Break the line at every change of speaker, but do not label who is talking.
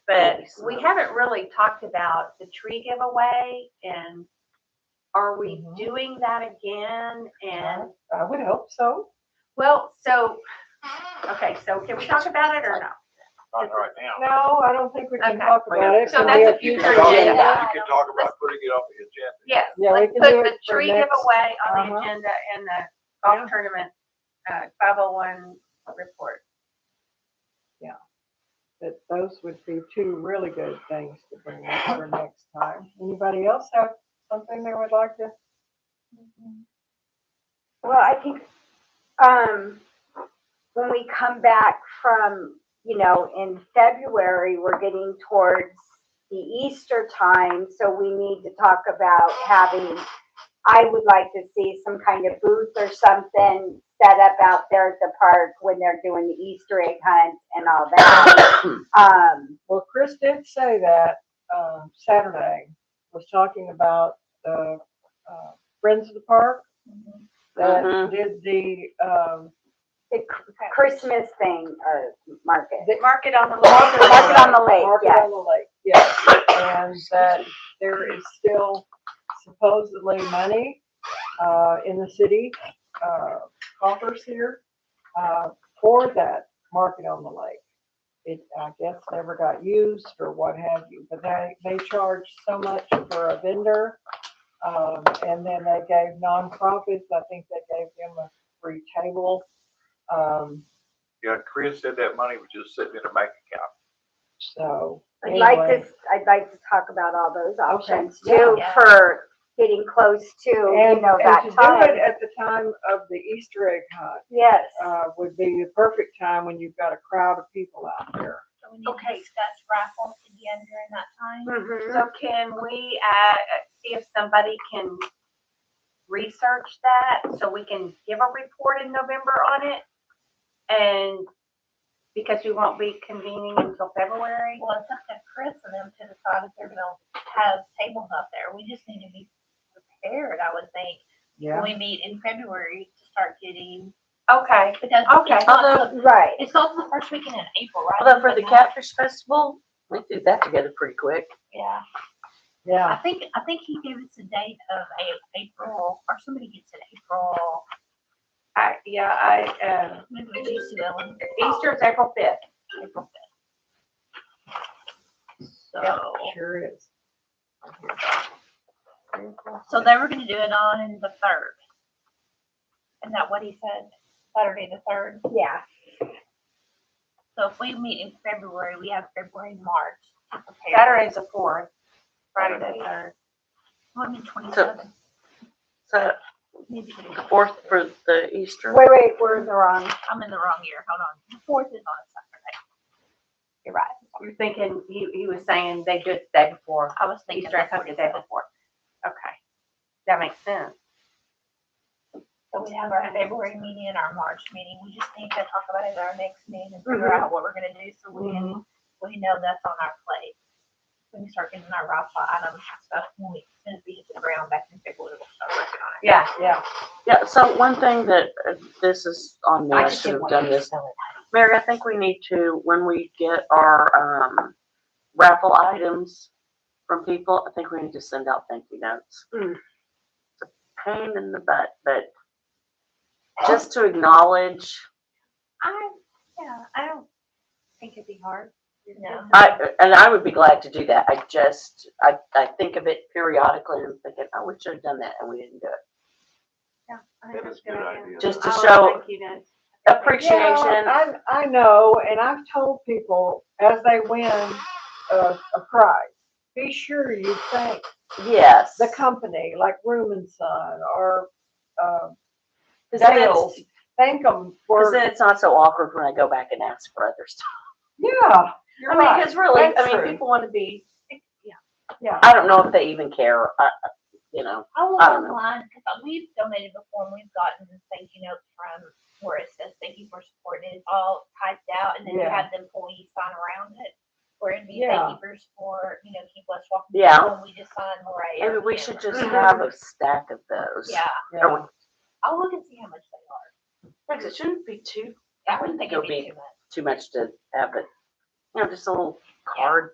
but we haven't really talked about the tree giveaway and are we
Mhm.
doing that again? And,
I would hope so.
well, so, okay, so can we talk about it or no?
Not right now.
No, I don't think we can
Okay.
talk about it.
So
Can
that's
we
a
have
You
future
can talk-
agenda.
You can talk about putting it on the agenda.
Yes,
Yeah, we
let's
can
put
do
the
it for
tree
next-
giveaway on the
Uh-huh.
agenda and the golf
Yeah.
tournament, uh, five oh one report.
That those would be two really good things to bring up for next time. Anybody else have something they would like to?
Well, I think, um, when we come back from, you know, in February, we're getting towards the Easter time, so we need to talk about having, I would like to see some kind of booth or something set up out there at the park when they're doing the Easter egg hunt and all that. Um,
Well, Chris did say that, um, Saturday was talking about the, uh, Friends of the Park that
Mm-hmm.
did the, um,
the Ch- Christmas thing or market.
Mark it on the
Mark it- mark it
list.
on the lake,
Market
yeah.
on the lake, yes. And that there is still supposedly money, uh, in the city, uh, coffers here, uh, for that market on the lake. It, I guess, never got used or what have you, but they, they charge so much for a vendor. Um, and then they gave nonprofits, I think they gave them a free table. Um,
Yeah, Chris said that money was just sitting in a bank account.
so.
I'd like
anyway.
to, I'd like to talk about all those options
Okay.
too
Yeah.
for getting close to, you
And,
know,
and
that
to do it
time.
at the time of the Easter egg hunt,
Yes.
uh, would be the perfect time when you've got a crowd of people out there.
So we need to
Okay.
discuss raffles again during that time.
Mhm.
So can we, uh, see if somebody can research that so we can give a report in November on it? And because we won't be convening until February?
Well, it's up to Chris and them to decide if they're gonna have tables out there. We just need to be prepared, I would think. When we meet in February to start getting,
Okay,
because
Okay.
it's also,
Right.
it's also the first weekend in April, right?
Although for the Catfish Festival, we did that together pretty quick.
Yeah, I
Yeah,
think, I think he gave us a date of A- April, or somebody gets it April.
I, yeah, I, uh,
Maybe we used to go in
Easter is April fifth.
April fifth.
Yeah.
So.
sure is.
So they were gonna do it on the third. Isn't that what he said? Saturday the third.
Yeah.
So if we meet in February, we have February, March to prepare.
Saturday's the fourth, Friday the third.
One and twenty-seven.
So
Maybe
the fourth for the Easter.
Wait, wait, we're in the wrong.
I'm in the wrong year. Hold on. The fourth is on a Saturday. You're right.
You're thinking, he, he was saying they do it the day before,
I was thinking.
Easter, I
that's what
thought the
he
day
said.
before. Okay, that makes sense.
So we have our February meeting and our March meeting. We just need to talk about it at our next meeting and figure out what we're gonna do so we
Mm-hmm.
Mm-hmm.
can, we know that's on our plate. We can start getting our raffle items and stuff when we, as soon as we hit the ground back in February, we'll start working on it.
Yeah,
Yeah, so one thing that, uh, this is on me,
I
I
just
should
didn't
have
want
done this. Mary, I think we need to, when we get our, um, raffle items from people, I think we need to send out thank you notes.
Hmm.
Mm.
It's a Pain in the butt, but
Oh.
just to acknowledge,
I, yeah, I don't think it'd be hard.
No.
I, and I would be glad to do that. I just, I, I think of it periodically and I'm thinking, oh, we should have done that and we didn't do it.
I think
That is
that's
a good idea.
Just to
I would
show-
think Oh, you know.
Appreciation.
I, I know, and I've told people as they win a, a prize, be sure you thank
Yes.
the company like Room and Son or, uh,
Cause then
Zales.
it's,
thank them
'cause
for,
then it's not so awkward when I go back and ask for other stuff.
yeah. you're
I mean,
right.
cause really,
That's
I mean,
true.
people wanna be,
Yeah.
I don't know if they even care, I, I- you know.
I will
I don't know.
online because um, we've donated before and we've gotten thank you notes from where it says thank you for supporting. It's all typed out and then you
Yeah.
have the employees sign around it. Where it'd be
Yeah.
thank you for support, you know, keep us walking.
Yeah.
And we just sign right.
Maybe we should just
Mhm.
have a stack of those.
Yeah,
Yeah.
I'll look and see how much they
Because it shouldn't be too,
are. I wouldn't think
Go
it'd be
big.
too much.
too much to have, but, you know, just a little card